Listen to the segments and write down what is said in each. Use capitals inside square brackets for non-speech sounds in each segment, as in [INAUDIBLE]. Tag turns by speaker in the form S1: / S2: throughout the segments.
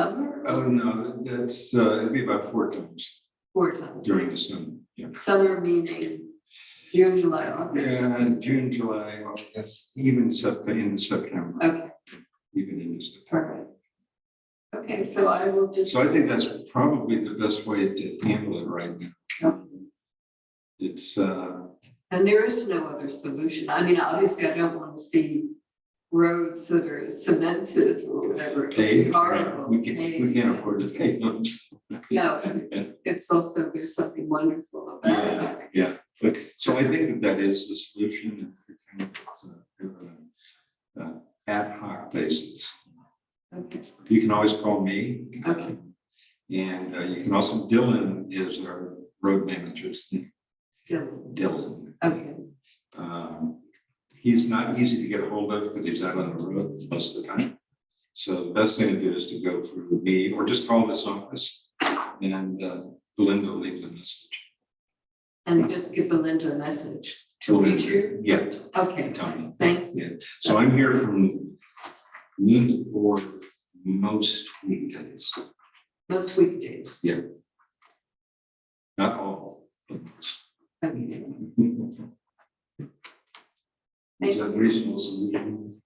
S1: Summer
S2: Oh,
S1: or
S2: no, that's, uh, it'd be about four times
S1: four times?
S2: during the summer, yeah.
S1: Summer meaning June, July, August.
S2: Yeah, in June, July, August, even Sep, in September,
S1: Okay,
S2: even in September.
S1: perfect. Okay, so I will just,
S2: So I think that's probably the best way to handle it right
S1: Yeah.
S2: now. It's, uh,
S1: and there is no other solution. I mean, obviously, I don't want to see roads that are cemented or whatever. It'd be
S2: paid, right?
S1: horrible,
S2: we can, we
S1: paved,
S2: can't
S1: yeah.
S2: afford to pay them.
S1: No, it's also, there's something wonderful about it.
S2: [LAUGHS] Yeah, but, so I think that that is the solution, kind of, it's a- uh, uh, ad hoc basis.
S1: Okay,
S2: You can always call me.
S1: Okay.
S2: And uh, you can also, Dylan is our road manager,
S1: Dylan,
S2: Dylan.
S1: okay,
S2: Um, He's not easy to get a hold of because he's out on the road most of the time. So the best thing to do is to go through me or just call this office and uh, Belinda will leave the message.
S1: and just give Belinda a message to reach you.
S2: Yeah,
S1: Okay,
S2: Tony.
S1: thank
S2: Yeah, so I'm here from noon to four most weekdays,
S1: most weekdays.
S2: not all.
S1: Okay.
S2: Is that reasonable solution?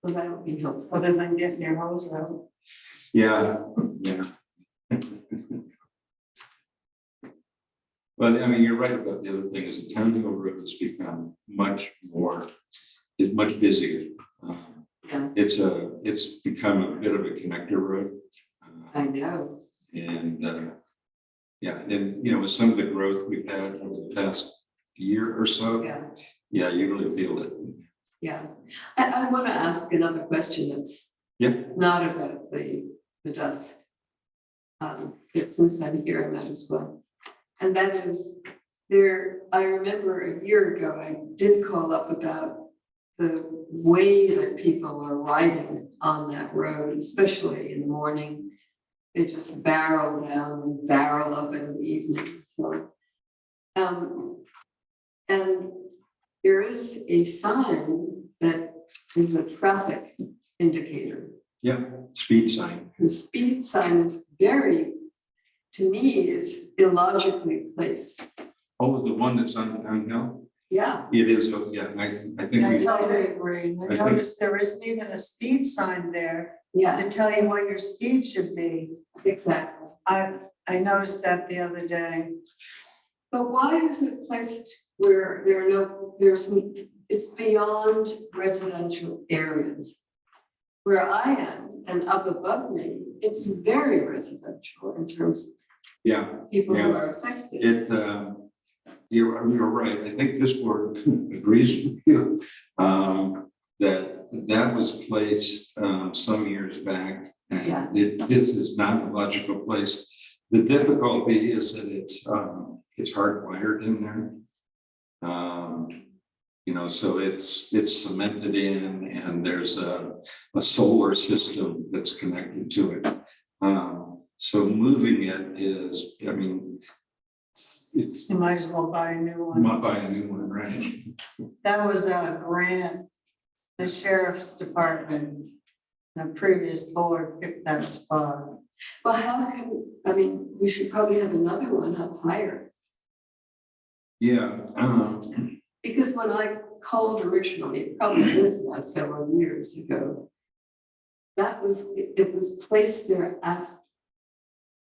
S1: Well, that would be helpful.
S3: other than getting your hose out.
S2: Yeah, yeah. Well, I mean, you're right about the other thing is the town hill road has become much more, is much busier. Um,
S1: Yeah.
S2: It's a, it's become a bit of a connector road. uh,
S1: I know.
S2: And, uh, yeah, and, you know, with some of the growth we've had over the past year or so,
S1: Yeah,
S2: yeah, you really feel it.
S1: yeah. I, I want to ask another question that's
S2: Yeah.
S1: not about the, the dust. Um, but since I'm here, I might as well. And that is, there, I remember a year ago, I did call up about the way that people are riding on that road, especially in the morning. They just barrel down, barrel up in the evening, so. Um, and there is a sign that is a traffic indicator.
S2: Yeah, speed sign.
S1: The speed sign is very, to me, it's illogically placed.
S2: Oh, the one that's on town hill?
S1: Yeah,
S2: It is, oh, yeah, I, I think
S3: I
S2: we.
S3: totally agree.
S2: I
S3: I
S2: think-
S3: noticed there isn't even a speed sign there
S1: yeah,
S3: to tell you what your speed should be.
S1: exactly.
S3: I, I noticed that the other day.
S1: But why is it placed where there are no, there's, n- it's beyond residential areas? Where I am and up above me, it's very residential in terms
S2: Yeah,
S1: of people who
S2: Yeah.
S1: are affected.
S2: it, uh, you're, you're right. I think this board [LAUGHS] agrees with you. um, That, that was placed um, some years back.
S1: Yeah.
S2: And it- this is not a logical place. The difficulty is that it's, um, it's hardwired in there. Um, You know, so it's, it's cemented in and there's a, a solar system that's connected to it. Um, So moving it is, I mean, it's
S3: You might as well buy a new one.
S2: not buying a new one, right?
S3: That was a grant. The sheriff's department, the previous board picked that spot.
S1: Well, how can, I mean, we should probably have another one up higher.
S2: Yeah, um,
S1: Because when I called originally, it probably was now several years ago. That was, it it was placed there as.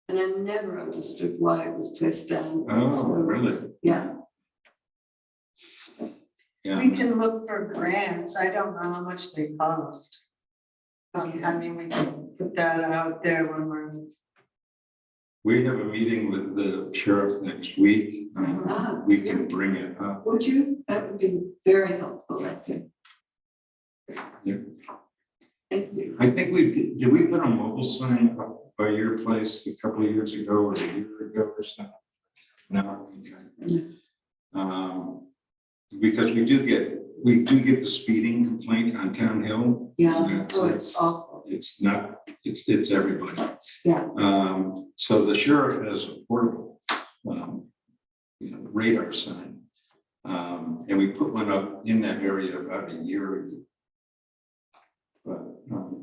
S1: And I never understood why it was placed down.
S2: oh,
S1: So,
S2: really?
S1: Yeah,
S2: Yeah.
S3: We can look for grants. I don't know how much they cost. Um, I
S1: okay,
S3: mean, we can put that out there when we're.
S2: We have a meeting with the sheriff next week. Um,
S1: Ah,
S2: We can bring it up.
S1: would you, that would be very helpful, I think.
S2: Yeah.
S1: Thank you.
S2: I think we, did we put a mobile sign up by your place a couple of years ago or a year ago or something? No. okay. Um, Because we do get, we do get the speeding complaint on Town Hill.
S1: Yeah,
S2: Yeah,
S1: oh,
S2: so
S1: it's awful,
S2: It's not, it's, it's everybody.
S1: Yeah.
S2: Um, so the sheriff has a portable, um, you know, radar sign. Um, and we put one up in that area about a year ago. But, um,